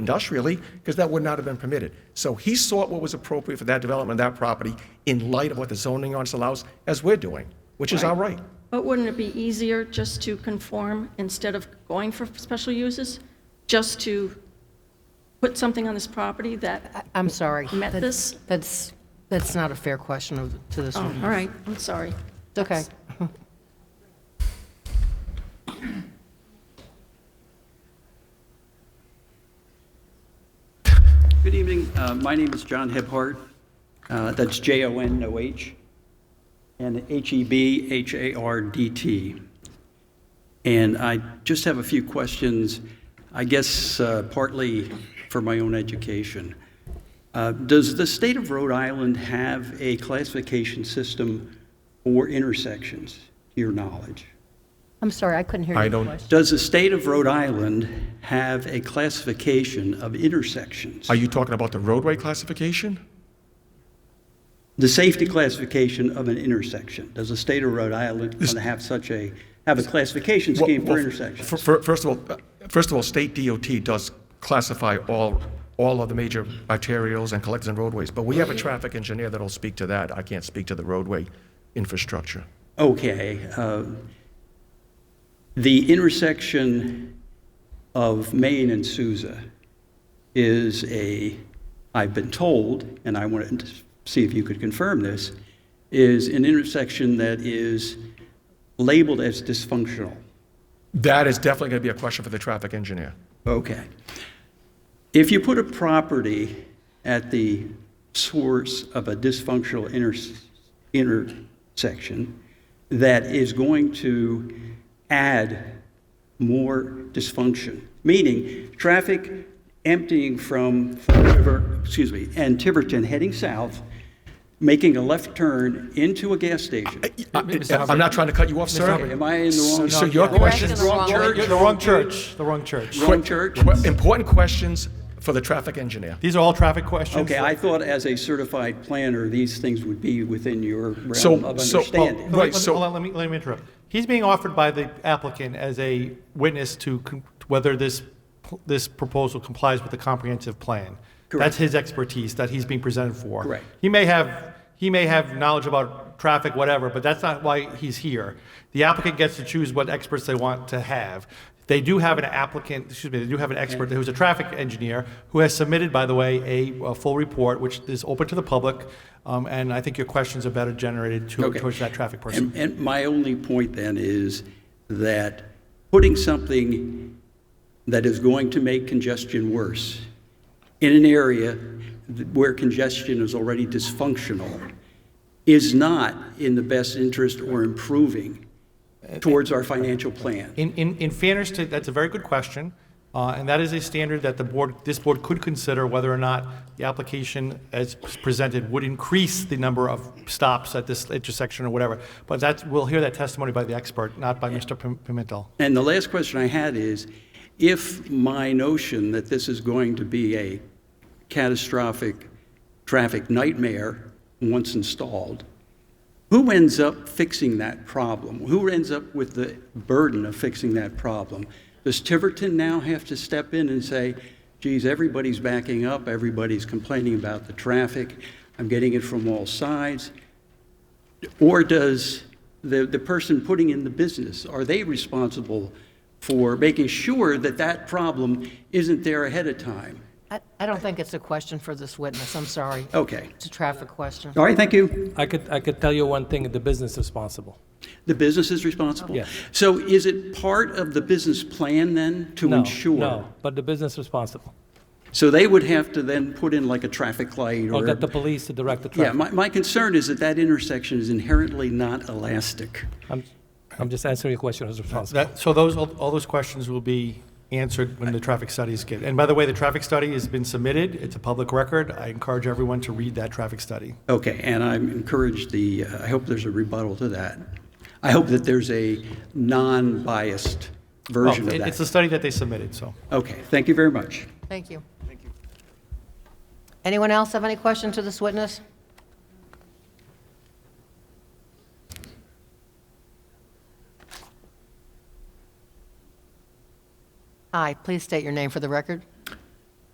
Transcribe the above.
industrially, because that would not have been permitted. So he sought what was appropriate for that development, that property, in light of what the zoning ordinance allows, as we're doing, which is our right. But wouldn't it be easier just to conform instead of going for special uses? Just to put something on this property that, I- I'm sorry. Met Ah, That- this? That's, that's not a fair question of- to this oh, one. all right, I'm sorry. It's okay. Good evening. Uh, My name is John Hebhart. Uh, That's J-O-N-O-H, and E H-E-B-H-A-R-D-T. And I just have a few questions, I guess uh, partly for my own education. Uh, Does the state of Rhode Island have a classification system for intersections, to your knowledge? I'm sorry, I couldn't hear I your don't- question. Does the state of Rhode Island have a classification of intersections? Are you talking about the roadway classification? The safety classification of an intersection. Does the state of Rhode Island want to have such a, have a classification scheme Well, well, fir- for intersections? fir- First of all, uh, first of all, state DOT does classify all, all of the major arterials and collectors and roadways, but we have a traffic engineer that'll speak to that. I can't speak to the roadway infrastructure. Okay. uh, The intersection of Main and Souza is a, I've been told, and I wanted to see if you could confirm this, is an intersection that is labeled as dysfunctional. That is definitely going to be a question for the traffic engineer. Okay. If you put a property at the source of a dysfunctional inter- intersection that is going to add more dysfunction, meaning traffic emptying from Fall River, excuse me, and Tiverton heading south, making a left turn into a gas station. I'm not trying to cut you off, sir. Am I in the wrong? So your question, the wrong church, You're the wrong church, the wrong church. Wrong church? que- important questions for the traffic engineer. These are all traffic questions. Okay, I thought as a certified planner, these things would be within your So- realm of so- oh, understanding. Let me- Right, let me- so- hold on, Let me, let me interrupt. He's being offered by the applicant as a witness to con- whether this, p- this proposal complies with the comprehensive plan. Correct. That's his expertise that he's being presented for. Correct. He may have, he may have knowledge about traffic, whatever, but that's not why he's here. The applicant gets to choose what experts they want to have. They do have an applicant, excuse me, they do have an expert who's a traffic engineer who has submitted, by the way, a, a full report, which is open to the public. Um, and I think your questions are better generated to, Okay. towards that traffic person. And, and my only point then is that putting something that is going to make congestion worse in an area th- where congestion is already dysfunctional is not in the best interest or improving towards our financial plan. In, in, in fairness to, that's a very good question, uh, and that is a standard that the board, this board could consider whether or not the application as presented would increase the number of stops at this intersection or whatever. But that's, we'll hear that testimony by the expert, not by Mr. Pim- Pimentel. And the last question I had is, if my notion that this is going to be a catastrophic traffic nightmare once installed, who ends up fixing that problem? Who ends up with the burden of fixing that problem? Does Tiverton now have to step in and say, geez, everybody's backing up, everybody's complaining about the traffic, I'm getting it from all sides? Or does the, the person putting in the business, are they responsible for making sure that that problem isn't there ahead of time? I I don't think it's a question for this witness, I'm sorry. Okay. It's a traffic question. All right, thank you. I could, I could tell you one thing, the business is responsible. The business is responsible? Yes. So is it part of the business plan then to No, ensure? No, but the business is responsible. So they would have to then put in like a traffic light or? Or get Oh, the police to direct the Yeah, traffic. my, my concern is that that intersection is inherently not elastic. I'm, I'm just answering your question as responsible. That, so those, all all those questions will be answered when the traffic studies get, and by the way, the traffic study has been submitted, it's a public record. I encourage everyone to read that traffic study. Okay, and I'm encouraged the, I hope there's a rebuttal to that. I hope that there's a non-biased version of Well, Oh, it- that. It's a study that they submitted, so. Okay, thank you very much. Thank you. Anyone else have any question to this witness? Hi, please state your name for the record.